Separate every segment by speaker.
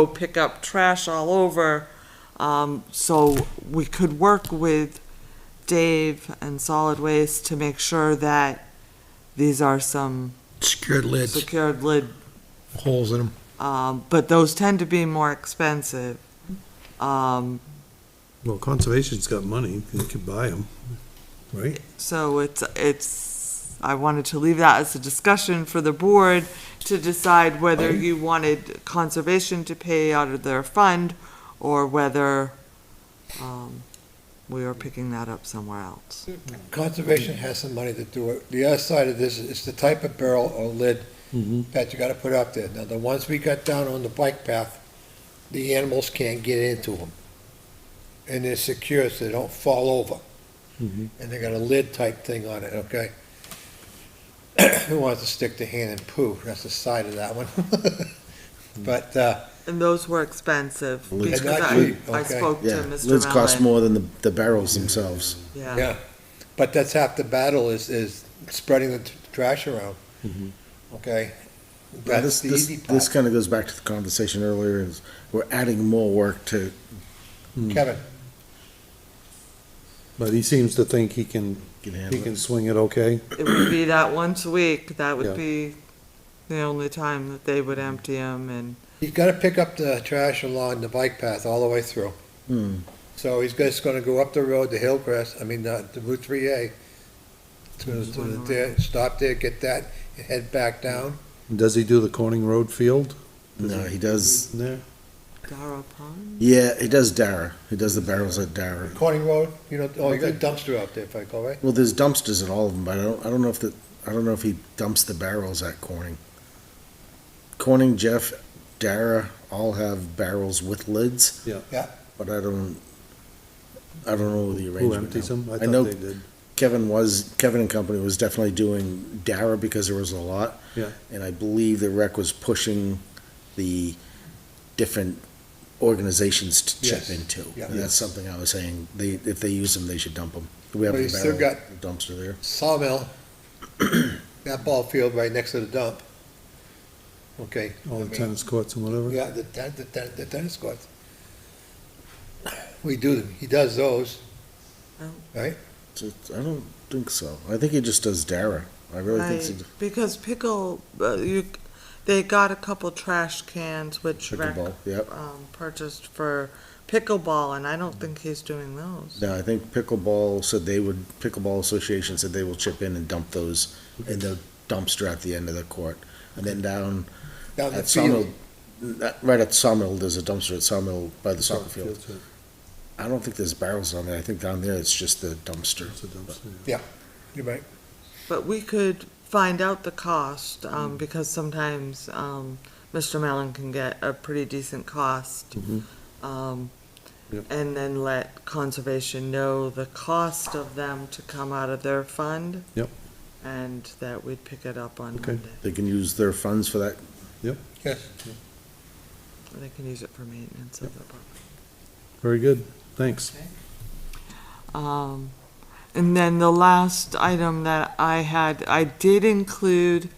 Speaker 1: go pick up trash all over. Um, so we could work with Dave and Solid Waste to make sure that these are some
Speaker 2: Secured lids,
Speaker 1: secured lid,
Speaker 2: holes in them.
Speaker 1: um, but those tend to be more expensive. Um,
Speaker 3: Well, conservation's got money, they could buy them, right?
Speaker 1: So it's, it's, I wanted to leave that as a discussion for the board to decide whether you wanted conservation to pay out of their fund or whether, um, we are picking that up somewhere else.
Speaker 4: Conservation has some money to do it. The other side of this is the type of barrel or lid
Speaker 5: Mm-hmm.
Speaker 4: that you gotta put up there. Now, the ones we got down on the bike path, the animals can't get into them. And they're secure, so they don't fall over. And they got a lid type thing on it, okay? Who wants to stick their hand in poo? That's the side of that one. But, uh,
Speaker 1: And those were expensive because I,
Speaker 4: Exactly,
Speaker 1: I
Speaker 4: okay.
Speaker 1: spoke to
Speaker 5: Yeah,
Speaker 1: Mr.
Speaker 5: lids cost
Speaker 1: Mellon.
Speaker 5: more than the, the barrels themselves.
Speaker 1: Yeah,
Speaker 4: yeah, but that's half the battle is, is spreading the t- trash around, okay?
Speaker 5: Yeah,
Speaker 4: That's
Speaker 5: Mm-hmm. This,
Speaker 4: the
Speaker 5: this,
Speaker 4: easy
Speaker 5: this
Speaker 4: part.
Speaker 5: kind of goes back to the conversation earlier, is we're adding more work to,
Speaker 4: Kevin?
Speaker 3: But he seems to think he can,
Speaker 5: Can
Speaker 3: he
Speaker 5: handle it.
Speaker 3: can swing it okay.
Speaker 1: it would be that once a week, that
Speaker 3: Yeah.
Speaker 1: would be the only time that they would empty them and,
Speaker 4: He's gotta pick up the trash along the bike path all the way through.
Speaker 5: hmm,
Speaker 4: So he's just gonna go up the road to Hillcrest, I mean, uh, to Route three A. To, to the- there, stop there, get that, and head back down.
Speaker 3: Does he do the Corning Road field
Speaker 5: no, he does,
Speaker 3: in there?
Speaker 1: Darrow Pond?
Speaker 5: yeah, he does Dara. He does the barrels at Dara.
Speaker 4: Corning Road, you know, oh, you got a dumpster out there, if I go right?
Speaker 5: Well, there's dumpsters at all of them, but I don't, I don't know if the, I don't know if he dumps the barrels at Corning. Corning, Jeff, Dara all have barrels with lids.
Speaker 3: Yeah.
Speaker 4: Yeah.
Speaker 5: But I don't, I don't know the arrangement.
Speaker 3: Who empties
Speaker 5: now.
Speaker 3: them? I
Speaker 5: I
Speaker 3: thought
Speaker 5: know
Speaker 3: they did.
Speaker 5: Kevin was, Kevin and company was definitely doing Dara because there was a lot.
Speaker 3: Yeah.
Speaker 5: And I believe the rec was pushing the different organizations to chip
Speaker 4: Yes.
Speaker 5: into.
Speaker 4: Yeah.
Speaker 5: And that's something I was saying, they, if they use them, they should dump them. We have
Speaker 4: But
Speaker 5: a
Speaker 4: you still
Speaker 5: barrel dumpster there.
Speaker 4: Sawmill, that ball field right next to the dump. Okay.
Speaker 3: All
Speaker 4: I
Speaker 3: the
Speaker 4: mean,
Speaker 3: tennis courts and whatever.
Speaker 4: Yeah, the ten, the ten, the tennis courts. We do, he does those.
Speaker 1: Oh.
Speaker 4: Right?
Speaker 5: So, I don't think so. I think he just does Dara. I really think so.
Speaker 1: Right, because pickle, uh, you, they got a couple trash cans which rec,
Speaker 5: Pickleball, yep.
Speaker 1: um, purchased for pickleball, and I don't think he's doing those.
Speaker 5: No, I think pickleball said they would, pickleball association said they will chip in and dump those in the dumpster at the end of the court. And then down
Speaker 4: Down the field.
Speaker 5: at Sawmill, not- right at Sawmill, there's a dumpster at Sawmill by the soccer
Speaker 3: Soccer
Speaker 5: field.
Speaker 3: fields, yeah,
Speaker 5: I don't think there's barrels on there. I think down there it's just the dumpster.
Speaker 3: it's a dumpster, yeah.
Speaker 4: You're right.
Speaker 1: But we could find out the cost,
Speaker 5: Mm-hmm.
Speaker 1: um, because sometimes, um, Mr. Mallon can get a pretty decent cost.
Speaker 3: Mhm.
Speaker 5: Mm-hmm.
Speaker 1: Um,
Speaker 3: Yep.
Speaker 1: and then let conservation know the cost of them to come out of their fund.
Speaker 3: Yep.
Speaker 1: And that we'd pick it up on
Speaker 3: Okay.
Speaker 1: Monday,
Speaker 5: They can use their funds for that.
Speaker 4: Yes.
Speaker 1: or they can use it for maintenance of the property.
Speaker 3: Very good, thanks.
Speaker 1: Um, and then the last item that I had, I did include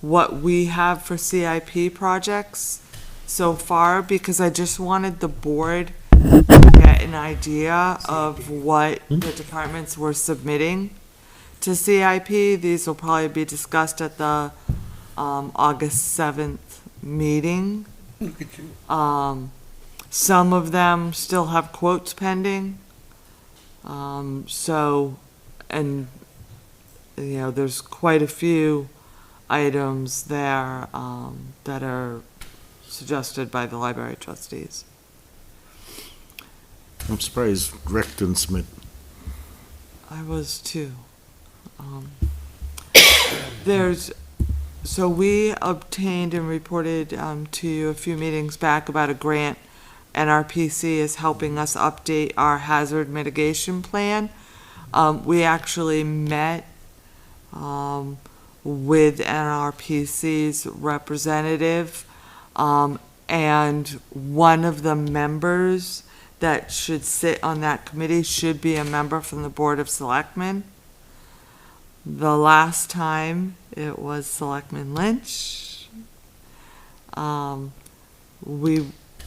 Speaker 1: what we have for CIP projects so far, because I just wanted the board to get an idea of what the departments were submitting to CIP. These will probably be discussed at the, um, August seventh meeting.
Speaker 4: Look at you.
Speaker 1: Um, some of them still have quotes pending. Um, so, and, you know, there's quite a few items there, um, that are suggested by the library trustees.
Speaker 5: I'm surprised Rick didn't submit.
Speaker 1: I was too. Um, There's, so we obtained and reported um, to you a few meetings back about a grant. NRPC is helping us update our hazard mitigation plan. Um, We actually met um, with NRPC's representative. um, And one of the members that should sit on that committee should be a member from the Board of Selectmen. The last time, it was Selectman Lynch. Um, we